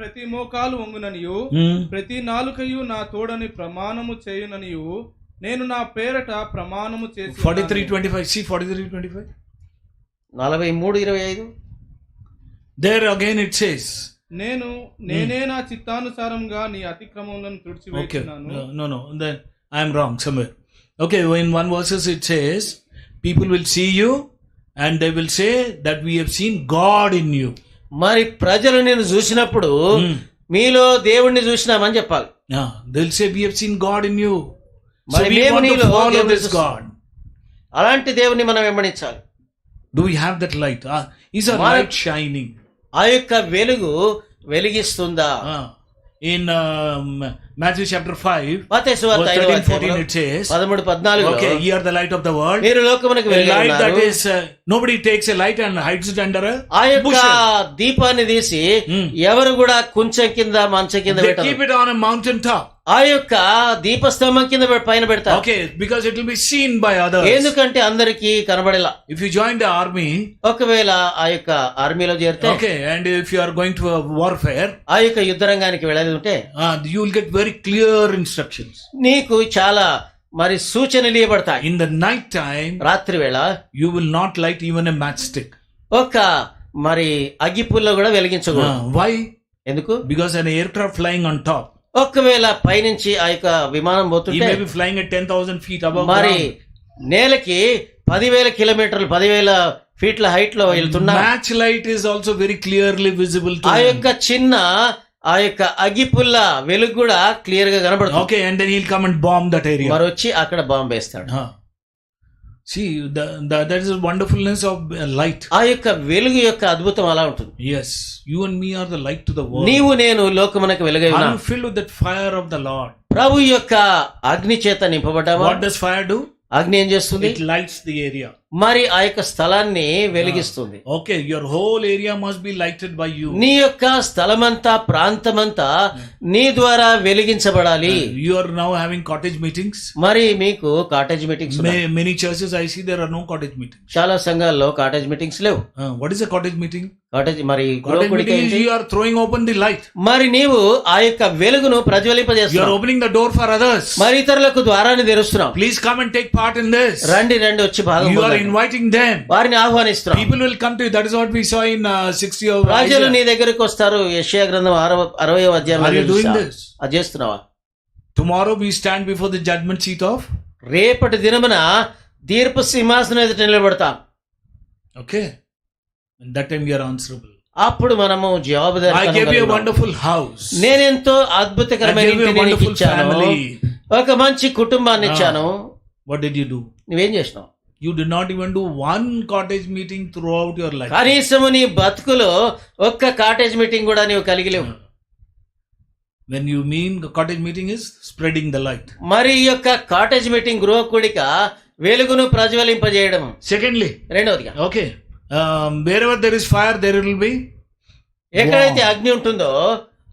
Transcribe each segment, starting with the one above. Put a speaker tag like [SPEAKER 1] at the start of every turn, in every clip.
[SPEAKER 1] ప్రతి మోకాలు వంగుననియు
[SPEAKER 2] ఉమ్,
[SPEAKER 1] ప్రతి నాలుకయు నా తోడని ప్రమాణము చేయుననియు నేను నా పేరట ప్రమాణము చేసి
[SPEAKER 2] 43 25 see 43 25
[SPEAKER 3] నలభై మూడు ఇరవై ఐదు
[SPEAKER 2] there again it says
[SPEAKER 1] నేను నేనే నా చిత్తానుసారంగా నీ అతిక్రమములను
[SPEAKER 2] okay
[SPEAKER 1] తుడిచివేసినాను
[SPEAKER 2] no no no then i am wrong somewhere okay in one verses it says people will see you and they will say that we have seen god in you
[SPEAKER 3] మరి ప్రజలు నేను చూసినప్పుడు
[SPEAKER 2] Mm.
[SPEAKER 3] మీలో దేవుణ్ణి చూసినామని చెప్పాలి
[SPEAKER 2] yeah they'll say we have seen god in you so
[SPEAKER 3] మరి
[SPEAKER 2] we
[SPEAKER 3] మేము
[SPEAKER 2] want to
[SPEAKER 3] నీలో
[SPEAKER 2] follow
[SPEAKER 3] దేవుని
[SPEAKER 2] this
[SPEAKER 3] చూస్తున్నాం.
[SPEAKER 2] god
[SPEAKER 3] అలాంటి దేవుని మనం వెంబడించాలి
[SPEAKER 2] do we have that light Ah, is our
[SPEAKER 3] Mar-
[SPEAKER 2] light shining
[SPEAKER 3] ఆ యొక్క వెలుగు వెలిగిస్తుందా
[SPEAKER 2] Ah, in um, matthew chapter 5
[SPEAKER 3] మత్తయి సువార్త
[SPEAKER 2] verse
[SPEAKER 3] ఐదవ
[SPEAKER 2] 13 14
[SPEAKER 3] అధ్యాయంలో
[SPEAKER 2] it says
[SPEAKER 3] పదమూడు పద్నాలుగు
[SPEAKER 2] okay ye are the light of the world
[SPEAKER 3] మీరు లోకమునకు
[SPEAKER 2] A
[SPEAKER 3] వెలుగై
[SPEAKER 2] light that
[SPEAKER 3] ఉన్నారు.
[SPEAKER 2] is uh, nobody takes a light and hides it under a
[SPEAKER 3] ఆ యొక్క
[SPEAKER 2] bushel.
[SPEAKER 3] దీపాన్ని తీసి
[SPEAKER 2] Mm.
[SPEAKER 3] ఎవరు కూడా కుంచెం కింద మంచం కింద
[SPEAKER 2] They keep
[SPEAKER 3] పెట్టారు
[SPEAKER 2] it on a mountain top.
[SPEAKER 3] ఆ యొక్క దీపస్తంభం కింద పె- పైన పెడతారు
[SPEAKER 2] Okay, because it will be seen by others.
[SPEAKER 3] ఎందుకంటే అందరికీ కనబడేలా
[SPEAKER 2] If you join the army,
[SPEAKER 3] ఒకవేళ ఆ యొక్క ఆర్మీలో చేరితే
[SPEAKER 2] okay, and if you are going to a warfare,
[SPEAKER 3] ఆ యొక్క యుద్ధ రంగానికి వెళ్ళేది ఉంటే
[SPEAKER 2] uh, you will get very clear instructions.
[SPEAKER 3] నీకు చాలా మరి సూచనలు ఇవ్వబడతాయి
[SPEAKER 2] In the night time,
[SPEAKER 3] రాత్రి వేళ
[SPEAKER 2] you will not light even a matchstick.
[SPEAKER 3] ఒక మరి అగ్గిపుల్ల కూడా వెలిగించకూడదు
[SPEAKER 2] Uh, why?
[SPEAKER 3] ఎందుకు
[SPEAKER 2] Because an aircraft flying on top,
[SPEAKER 3] ఒకవేళ పైనుంచి ఆ యొక్క విమానం
[SPEAKER 2] he
[SPEAKER 3] పోతుంటే
[SPEAKER 2] may be flying at 10,000 feet above
[SPEAKER 3] మరి
[SPEAKER 2] ground.
[SPEAKER 3] నేలకి పదివేల కిలోమీటర్లు పదివేల ఫీట్ల హైట్ లో వెళ్తున్నా
[SPEAKER 2] Match light is also very clearly visible to
[SPEAKER 3] ఆ
[SPEAKER 2] him.
[SPEAKER 3] యొక్క చిన్న ఆ యొక్క అగ్గిపుల్ల వెలుగు కూడా క్లియర్ గా కనబడుతుంది
[SPEAKER 2] Okay, and then he'll come and bomb that area.
[SPEAKER 3] మరి వచ్చి అక్కడ బాంబు వేస్తాడు
[SPEAKER 2] Huh. See, the, the, that is the wonderfulness of uh, light.
[SPEAKER 3] ఆ యొక్క వెలుగు యొక్క అద్భుతం అలా ఉంటుంది
[SPEAKER 2] Yes, you and me are the light to the world.
[SPEAKER 3] నీవు నేను లోకమునకు వెలుగై
[SPEAKER 2] Are
[SPEAKER 3] ఉన్నాం
[SPEAKER 2] you filled with that fire of the Lord?
[SPEAKER 3] ప్రభు యొక్క అగ్ని చేత నింపబడ్డామా
[SPEAKER 2] What does fire do?
[SPEAKER 3] అగ్ని ఏం చేస్తుంది
[SPEAKER 2] It lights the area.
[SPEAKER 3] మరి ఆ యొక్క స్థలాన్ని వెలిగిస్తుంది
[SPEAKER 2] Okay, your whole area must be lighted by you.
[SPEAKER 3] నీ యొక్క స్థలమంతా ప్రాంతమంతా నీ ద్వారా వెలిగించబడాలి
[SPEAKER 2] You are now having cottage meetings.
[SPEAKER 3] మరి మీకు కాటేజ్ మీటింగ్స్ ఉన్నాయి.
[SPEAKER 2] Ma- many churches I see there are no cottage meetings.
[SPEAKER 3] చాలా సంఘాల్లో కాటేజ్ మీటింగ్స్ లేవు
[SPEAKER 2] Uh, what is a cottage meeting?
[SPEAKER 3] Cottage మరి
[SPEAKER 2] Cottage
[SPEAKER 3] గృహకుడికి
[SPEAKER 2] meeting is
[SPEAKER 3] ఏంటి?
[SPEAKER 2] you are throwing open the light.
[SPEAKER 3] మరి నీవు ఆ యొక్క వెలుగును
[SPEAKER 2] You are
[SPEAKER 3] ప్రజ్వలింపజేస్తున్నావు
[SPEAKER 2] opening the door for others.
[SPEAKER 3] మరి ఇతరులకు ద్వారాన్ని తెరుస్తున్నావు
[SPEAKER 2] Please come and take part in this.
[SPEAKER 3] రండి రండి వచ్చి భాగం
[SPEAKER 2] You are
[SPEAKER 3] పొందండి.
[SPEAKER 2] inviting them.
[SPEAKER 3] వారిని ఆహ్వానిస్తున్నాం
[SPEAKER 2] People will come to you. That is what we saw in uh, 60 of
[SPEAKER 3] రాజులు నీ
[SPEAKER 2] Isaiah.
[SPEAKER 3] దగ్గరికి వస్తారు యెషయా గ్రంథం ఆరవ- అరవయో
[SPEAKER 2] Are you doing
[SPEAKER 3] అధ్యాయం
[SPEAKER 2] this?
[SPEAKER 3] అది చేస్తున్నావా
[SPEAKER 2] Tomorrow we stand before the judgment seat of.
[SPEAKER 3] రేపటి దినమున తీర్పు సింహాసనం ఎదుట నిలబడతాం
[SPEAKER 2] Okay. And that time we are answerable.
[SPEAKER 3] అప్పుడు మనము
[SPEAKER 2] I gave you a
[SPEAKER 3] జవాబుదారి
[SPEAKER 2] wonderful house.
[SPEAKER 3] నేనెంతో
[SPEAKER 2] I
[SPEAKER 3] అద్భుతకరమైన
[SPEAKER 2] gave you a
[SPEAKER 3] ఇంటిని నీకు
[SPEAKER 2] wonderful
[SPEAKER 3] ఇచ్చాను
[SPEAKER 2] family.
[SPEAKER 3] ఒక మంచి కుటుంబాన్ని ఇచ్చాను
[SPEAKER 2] What did you do?
[SPEAKER 3] నువ్వేం చేసినావు
[SPEAKER 2] You did not even do one cottage meeting throughout your life.
[SPEAKER 3] కనీసము నీ బతుకులో ఒక్క కాటేజ్ మీటింగ్ కూడా నీవు కలిగి లేవు
[SPEAKER 2] Uh, When you mean the cottage meeting is spreading the light.
[SPEAKER 3] మరి ఈ యొక్క కాటేజ్ మీటింగ్ గృహ కూడిక వెలుగును ప్రజ్వలింపజేయడం
[SPEAKER 2] Secondly,
[SPEAKER 3] రెండవదిగా
[SPEAKER 2] okay, um, wherever there is fire, there will be.
[SPEAKER 3] ఎక్కడైతే అగ్ని ఉంటుందో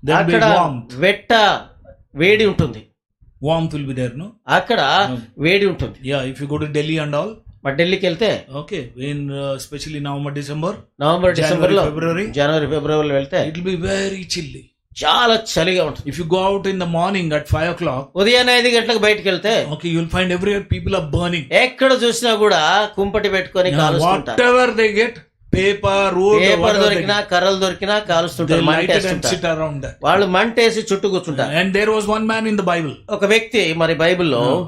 [SPEAKER 2] There will be
[SPEAKER 3] అక్కడ
[SPEAKER 2] warmth.
[SPEAKER 3] వెట్ట వేడి ఉంటుంది
[SPEAKER 2] Warmth will be there, no?
[SPEAKER 3] అక్కడ
[SPEAKER 2] Hmm.
[SPEAKER 3] వేడి ఉంటుంది
[SPEAKER 2] Yeah, if you go to Delhi and all,
[SPEAKER 3] మా ఢిల్లీకి వెళ్తే
[SPEAKER 2] Okay, in uh, especially November, December,
[SPEAKER 3] November December లో
[SPEAKER 2] January, February.
[SPEAKER 3] జనవరి ఫిబ్రవరిలో వెళ్తే
[SPEAKER 2] it will be very chilly.
[SPEAKER 3] చాలా చలిగా ఉంటుంది
[SPEAKER 2] If you go out in the morning at five o'clock,
[SPEAKER 3] ఉదయాన్నే ఐదు గంటలకు బయటకు వెళ్తే
[SPEAKER 2] okay, you'll find everywhere people are burning.
[SPEAKER 3] ఎక్కడ చూసినా కూడా కుంపటి పెట్టుకొని
[SPEAKER 2] Now,
[SPEAKER 3] కాలుస్తుంటారు
[SPEAKER 2] whatever they get, paper, wood, or
[SPEAKER 3] paper
[SPEAKER 2] whatever they
[SPEAKER 3] దొరికినా
[SPEAKER 2] get,
[SPEAKER 3] కర్రలు దొరికినా
[SPEAKER 2] they
[SPEAKER 3] కాలుస్తుంటారు
[SPEAKER 2] light it and
[SPEAKER 3] మంటేస్తుంటారు
[SPEAKER 2] sit around that.
[SPEAKER 3] వాళ్ళు మంటేసి చుట్టూ కూర్చుంటారు
[SPEAKER 2] And there was one man in the Bible.
[SPEAKER 3] ఒక వ్యక్తి మరి బైబిల్లో
[SPEAKER 2] Uh,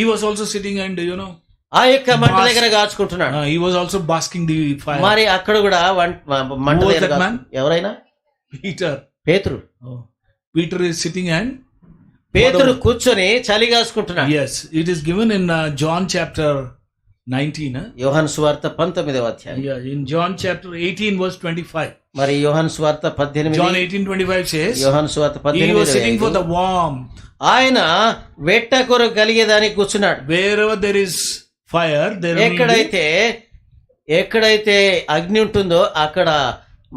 [SPEAKER 2] he was also sitting and you know,
[SPEAKER 3] ఆ యొక్క మంట
[SPEAKER 2] Bas-
[SPEAKER 3] దగ్గర కాచుకుంటున్నాడు
[SPEAKER 2] uh, he was also basking the fire.
[SPEAKER 3] మరి అక్కడ కూడా వన్- మ- మంట
[SPEAKER 2] Who was
[SPEAKER 3] దగ్గర
[SPEAKER 2] that man?
[SPEAKER 3] కాచు- ఎవరైనా
[SPEAKER 2] Peter,
[SPEAKER 3] పేతురు
[SPEAKER 2] oh, Peter is sitting and
[SPEAKER 3] పేతురు కూర్చొని చలి కాచుకుంటున్నాడు
[SPEAKER 2] yes, it is given in uh, John chapter nineteen. Huh?
[SPEAKER 3] యోహన్ సువార్త పంతొమ్మిదవ అధ్యాయం
[SPEAKER 2] Yeah, in John chapter 18, verse 25.
[SPEAKER 3] మరి యోహన్ సువార్త
[SPEAKER 2] John
[SPEAKER 3] పద్దెనిమిది
[SPEAKER 2] 18, 25 says,
[SPEAKER 3] యోహన్ సువార్త
[SPEAKER 2] He was sitting for
[SPEAKER 3] పద్దెనిమిది
[SPEAKER 2] the warm.
[SPEAKER 3] ఆయన వెట్ట కొర కలిగేదానికి కూర్చున్నాడు
[SPEAKER 2] Wherever there is fire, there will be.
[SPEAKER 3] ఎక్కడైతే ఎక్కడైతే అగ్ని ఉంటుందో అక్కడ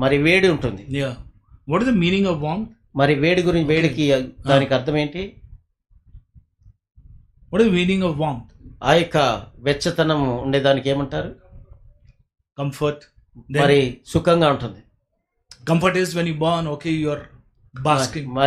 [SPEAKER 3] మరి వేడి ఉంటుంది
[SPEAKER 2] Yeah. What is the meaning of warm?
[SPEAKER 3] మరి వేడి గురించి వేడికి దానికి అర్థం ఏంటి
[SPEAKER 2] What is the meaning of warmth?
[SPEAKER 3] ఆ యొక్క వెచ్చతనం ఉండేదానికి ఏమంటారు
[SPEAKER 2] Comfort. Then
[SPEAKER 3] మరి సుఖంగా ఉంటుంది
[SPEAKER 2] Comfort is when you burn, okay, you are basking.